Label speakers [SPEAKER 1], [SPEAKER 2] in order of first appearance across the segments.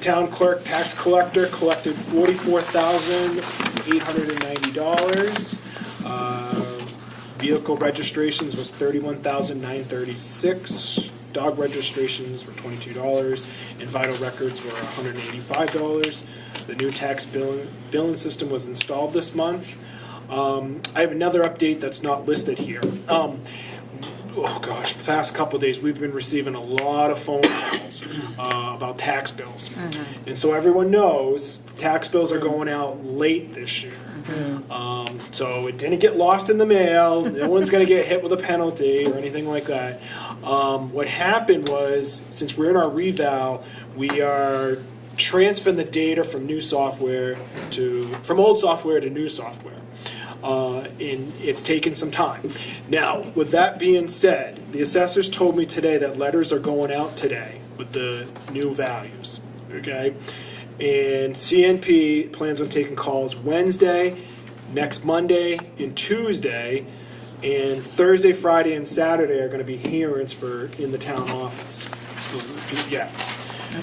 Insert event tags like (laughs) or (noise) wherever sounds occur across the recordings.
[SPEAKER 1] Town clerk, tax collector collected forty-four thousand eight hundred and ninety dollars. Uh, Vehicle registrations was thirty-one thousand nine thirty-six. Dog registrations were twenty-two dollars, and vital records were hundred and eighty-five dollars. The new tax billing, billing system was installed this month. Um, I have another update that's not listed here. Um, oh gosh, the past couple of days, we've been receiving a lot of phone calls uh, about tax bills. And so everyone knows tax bills are going out late this year. Um, so it didn't get lost in the mail. No one's going to get hit with a penalty or anything like that. Um, what happened was, since we're in our reval, we are transferring the data from new software to from old software to new software uh, and it's taken some time. Now, with that being said, the assessors told me today that letters are going out today with the new values, okay? And CNP plans on taking calls Wednesday, next Monday, and Tuesday, and Thursday, Friday, and Saturday are gonna be hearings for, in the town office. Yeah,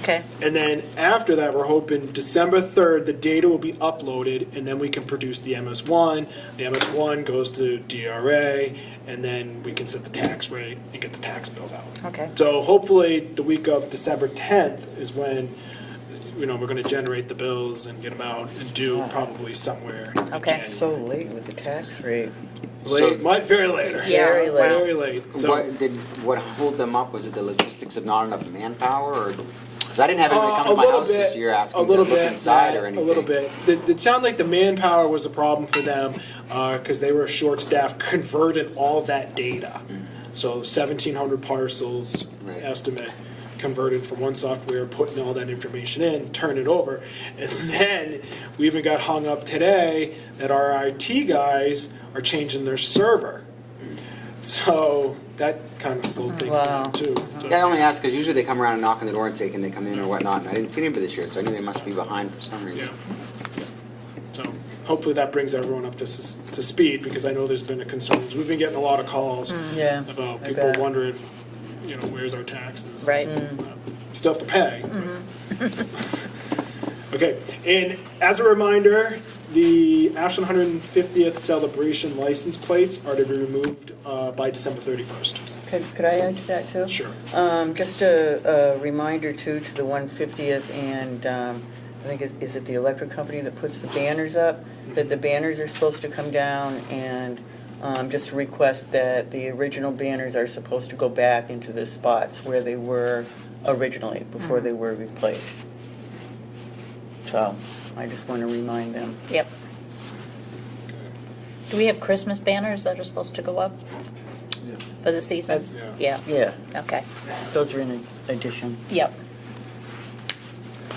[SPEAKER 2] Okay,
[SPEAKER 1] and then after that, we're hoping December 3rd, the data will be uploaded, and then we can produce the MS1. The MS1 goes to DRA, and then we can set the tax rate and get the tax bills out.
[SPEAKER 2] Okay.
[SPEAKER 1] So hopefully, the week of December 10th is when, you know, we're going to generate the bills and get them out and do probably somewhere in
[SPEAKER 2] Okay.
[SPEAKER 1] January.
[SPEAKER 3] So late with the tax rate.
[SPEAKER 1] So it might, very later.
[SPEAKER 2] Yeah,
[SPEAKER 3] Very late.
[SPEAKER 1] Very late. So-
[SPEAKER 4] What, did, what hold them up, was it the logistics of not enough manpower, or, because I didn't have anybody
[SPEAKER 1] Uh,
[SPEAKER 4] come to
[SPEAKER 1] a
[SPEAKER 4] my
[SPEAKER 1] little
[SPEAKER 4] house this
[SPEAKER 1] bit-
[SPEAKER 4] year
[SPEAKER 1] a
[SPEAKER 4] asking to
[SPEAKER 1] little
[SPEAKER 4] look
[SPEAKER 1] bit,
[SPEAKER 4] inside
[SPEAKER 1] yeah,
[SPEAKER 4] or anything.
[SPEAKER 1] A little bit. It, it sounded like the manpower was a problem for them because they were short staffed converting all that data. So 1,700 parcels
[SPEAKER 4] Mm-hmm. Right.
[SPEAKER 1] estimate converted from one software, putting all that information in, turn it over. And (laughs) then we even got hung up today that our IT guys are changing their server.
[SPEAKER 4] Mm.
[SPEAKER 1] So that kind of slowed things
[SPEAKER 3] Wow.
[SPEAKER 1] down too. So-
[SPEAKER 4] Yeah, I only ask because usually they come around and knock on the door and say, can they come in or whatnot, and I didn't see anybody this year, so I knew they must be behind for some reason.
[SPEAKER 1] Yeah. So hopefully that brings everyone up to, s- to speed because I know there's been a concern. We've been getting a lot of calls
[SPEAKER 3] Yeah.
[SPEAKER 1] about
[SPEAKER 3] I
[SPEAKER 1] people
[SPEAKER 3] bet.
[SPEAKER 1] wondering, you know, where's our taxes? Uh,
[SPEAKER 2] right.
[SPEAKER 3] Mm.
[SPEAKER 1] Stuff to pay. but- (laughs) Okay, and as a reminder, the Ashland 150th celebration license plates are to be removed uh, by December 31st.
[SPEAKER 3] Could, could I add to that too?
[SPEAKER 1] Sure.
[SPEAKER 3] Um, just a, a reminder too, to the one fiftieth and, um, I think, is, is it the electric company that puts the banners up? That the banners are supposed to come down and, um, just request that the original banners are supposed to go back into the spots where they were originally, before they were replaced. So, I just wanna remind them.
[SPEAKER 2] Yep. Do we have Christmas banners that are supposed to go up for the season?
[SPEAKER 1] Uh,
[SPEAKER 2] Yeah,
[SPEAKER 3] Yeah,
[SPEAKER 2] okay,
[SPEAKER 3] those are in addition.
[SPEAKER 2] yep.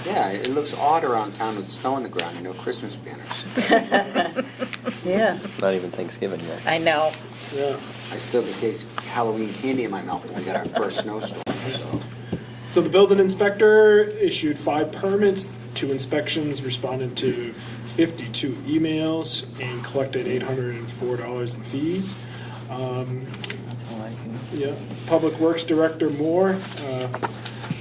[SPEAKER 4] Yeah, it looks odd around town with snow on the ground and no Christmas banners.
[SPEAKER 3] Yeah.
[SPEAKER 5] Not even Thanksgiving yet.
[SPEAKER 2] I know,
[SPEAKER 1] Yeah.
[SPEAKER 4] I still get case Halloween candy in my mouth when we got our first snowstorm, so.
[SPEAKER 1] So the building inspector issued five permits, two inspections, responded to 52 emails, and collected $804 in fees. Um,
[SPEAKER 3] That's all I can.
[SPEAKER 1] yeah, Public Works Director Moore, uh,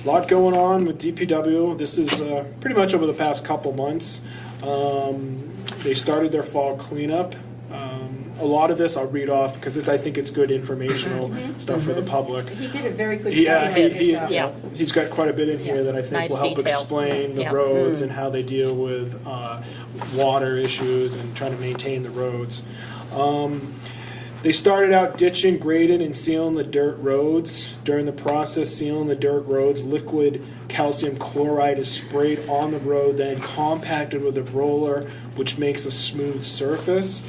[SPEAKER 1] lot going on with DPW. This is uh, pretty much over the past couple months. Um, They started their fall cleanup. Um, A lot of this I'll read off because it's, I think it's good informational stuff for the public.
[SPEAKER 6] He did a very good
[SPEAKER 1] Yeah,
[SPEAKER 6] job
[SPEAKER 1] he,
[SPEAKER 6] with
[SPEAKER 1] he,
[SPEAKER 6] this.
[SPEAKER 2] Yeah.
[SPEAKER 1] he's got quite a bit in here
[SPEAKER 6] Yeah.
[SPEAKER 1] that I think
[SPEAKER 2] Nice
[SPEAKER 1] will help
[SPEAKER 2] detail.
[SPEAKER 1] explain the
[SPEAKER 2] Yeah.
[SPEAKER 1] roads and how they deal with, uh, water issues and trying to maintain the roads. Um, they started out ditching, grading, and sealing the dirt roads. During the process, sealing the dirt roads, liquid calcium chloride is sprayed on the road, then compacted with a roller, which makes a smooth surface.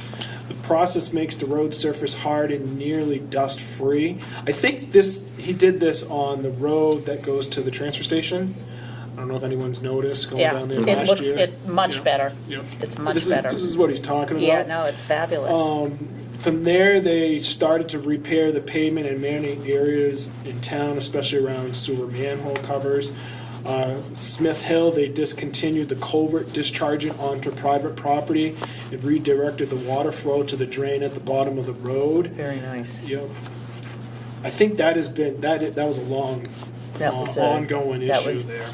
[SPEAKER 1] The process makes the road surface hard and nearly dust free. I think this he did this on the road that goes to the transfer station. I don't know if anyone's noticed going
[SPEAKER 2] yeah.
[SPEAKER 1] down there
[SPEAKER 2] It
[SPEAKER 1] last
[SPEAKER 2] looks
[SPEAKER 1] year.
[SPEAKER 2] it much
[SPEAKER 1] Yeah.
[SPEAKER 2] better.
[SPEAKER 1] Yep.
[SPEAKER 2] It's much
[SPEAKER 1] This is-
[SPEAKER 2] better.
[SPEAKER 1] This is what he's talking about.
[SPEAKER 2] Yeah, no, it's fabulous.
[SPEAKER 1] Um, from there, they started to repair the pavement and marinate areas in town, especially around sewer manhole covers. Uh, Smith Hill, they discontinued the culvert discharging onto private property and redirected the water flow to the drain at the bottom of the road.
[SPEAKER 3] Very nice.
[SPEAKER 1] Yep. I think that has been, that, that was a long,
[SPEAKER 3] That was
[SPEAKER 1] uh,
[SPEAKER 3] a-
[SPEAKER 1] ongoing
[SPEAKER 3] that
[SPEAKER 1] issue
[SPEAKER 3] was-
[SPEAKER 1] there.